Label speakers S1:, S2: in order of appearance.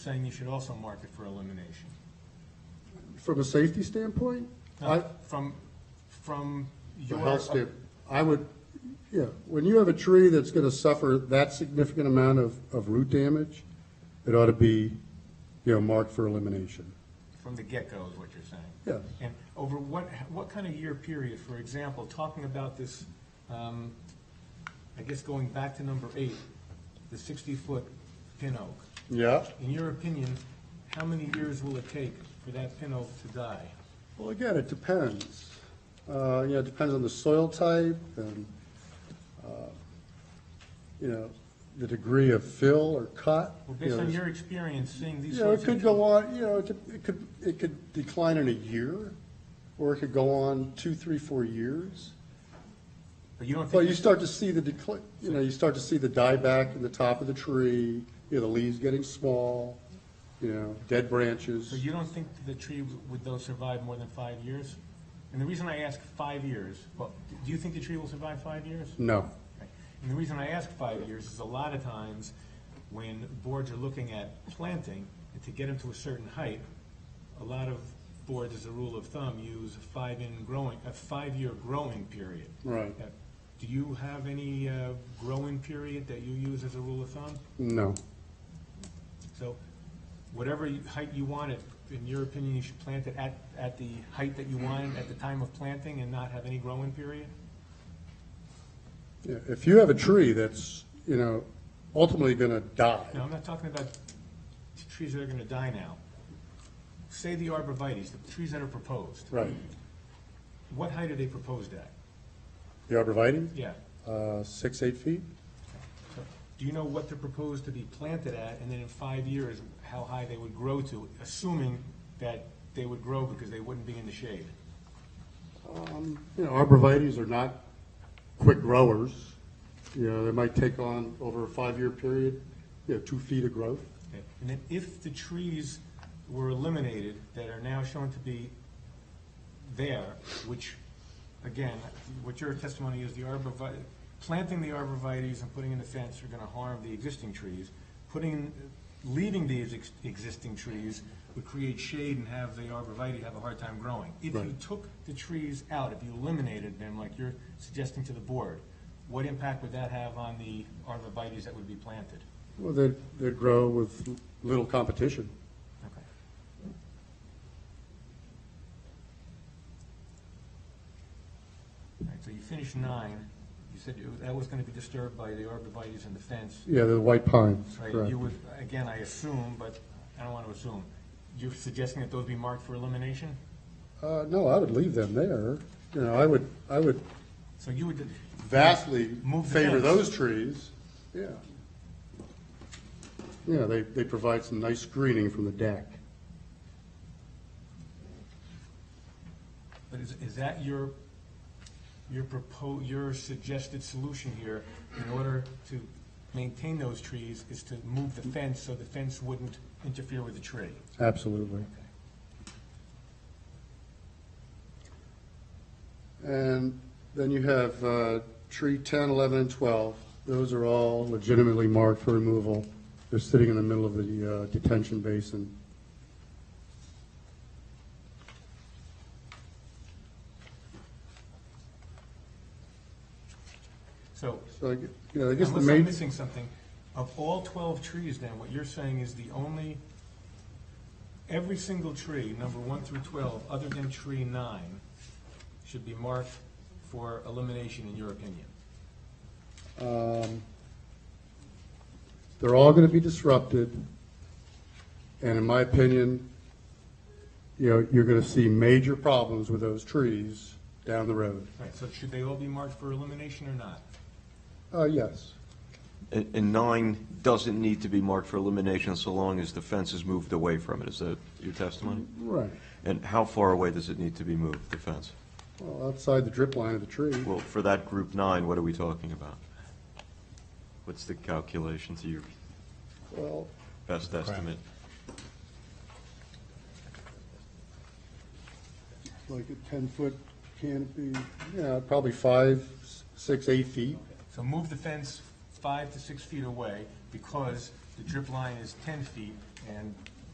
S1: saying you should also mark it for elimination.
S2: From a safety standpoint, I,
S1: Now, From, from your.
S2: from a health stand, I would, yeah, when you have a tree that's gonna suffer that significant amount of, of root damage, it ought to be, you know, marked for elimination.
S1: From the get-go is what you're saying?
S2: Yes.
S1: And over what, what kind of year period, for example, talking about this, um, I guess going back to number eight, the sixty-foot pin oak.
S2: Yeah.
S1: In your opinion, how many years will it take for that pin oak to die?
S2: Well, again, it depends. Uh, You know, it depends on the soil type and, uh, you know, the degree of fill or cut.
S1: Well,
S2: You
S1: based
S2: know,
S1: on your experience seeing these
S2: You know,
S1: sorts
S2: it
S1: of.
S2: could go on, you know, it could- it could, it could decline in a year, or it could go on two, three, four years.
S1: But you don't
S2: But
S1: think,
S2: you start to see the decline, you know, you start to see the dieback in the top of the tree, you know, the leaves getting small, you know, dead branches.
S1: so you don't think the tree, w- would though survive more than five years? And the reason I ask five years, well, do you think the tree will survive five years?
S2: No.
S1: Okay. And the reason I ask five years is a lot of times when boards are looking at planting, and to get them to a certain height, a lot of boards, as a rule of thumb, use a five-in growing, a five-year growing period.
S2: Right.
S1: Uh, Do you have any uh, growing period that you use as a rule of thumb?
S2: No.
S1: So whatever you- height you want it, in your opinion, you should plant it at, at the height that you want it at the time of planting and not have any growing period?
S2: Yeah, If you have a tree that's, you know, ultimately going to
S1: No,
S2: die,
S1: I'm not talking about t- trees that are gonna die now. Say the arborvitae's, the trees that are proposed.
S2: right,
S1: What height are they proposed at?
S2: the arborvitae,
S1: Yeah.
S2: uh, six, eight feet?
S1: So, Do you know what they're proposed to be planted at, and then in five years, how high they would grow to, assuming that they would grow because they wouldn't be in the shade?
S2: You know, arborvitae's are not quick growers. You know, they might take on over a five-year period, you know, two feet of growth.
S1: Okay. And then if the trees were eliminated that are now shown to be there, which, again, what your testimony is, the arborvitae, planting the arborvitae's and putting in the fence are gonna harm the existing trees. Putting, leaving these ex- existing trees would create shade and have the arborvitae have a hard time growing. If you
S2: Right.
S1: took the trees out, if you eliminated them, like you're suggesting to the board, what impact would that have on the arborvitae's that would be planted?
S2: Well, they, they grow with little competition.
S1: Okay. All right, so you finished nine. You said you- that was going to be disturbed by the arborvitae's and the fence.
S2: Yeah, the white pines,
S1: Right,
S2: correct.
S1: you would, again, I assume, but I don't want to assume. You're suggesting that those be marked for elimination?
S2: Uh, no, I would leave them there. You know, I would, I would
S1: So you would,
S2: vastly
S1: Move the
S2: favor
S1: fence.
S2: those trees. Yeah. Yeah, they, they provide some nice screening from the deck.
S1: but is, is that your, your propo, your suggested solution here in order to maintain those trees is to move the fence so the fence wouldn't interfere with the tree?
S2: Absolutely. And then you have uh, tree 10, 11, and 12. Those are all legitimately marked for removal. They're sitting in the middle of the uh, detention basin.
S1: So
S2: So, I gu- you know, I guess the
S1: Unless I'm
S2: main,
S1: missing something, of all twelve trees then, what you're saying is the only, every single tree, number one through twelve, other than tree nine, should be marked for elimination in your opinion.
S2: um, they're all going to be disrupted. And in my opinion, you know, you're going to see major problems with those trees down the road.
S1: Right, so should they all be marked for elimination or not?
S2: Uh, Yes.
S3: And and nine doesn't need to be marked for elimination so long as the fence is moved away from it, is that your testimony?
S2: Right.
S3: And how far away does it need to be moved, the fence?
S2: Well, outside the drip line of the tree.
S3: Well, for that group nine, what are we talking about? What's the calculation to your
S2: Well,
S3: best estimate?
S2: like a 10-foot canopy, yeah, probably five, s- six, eight feet.
S1: So move the fence five to six feet away because the drip line is ten feet and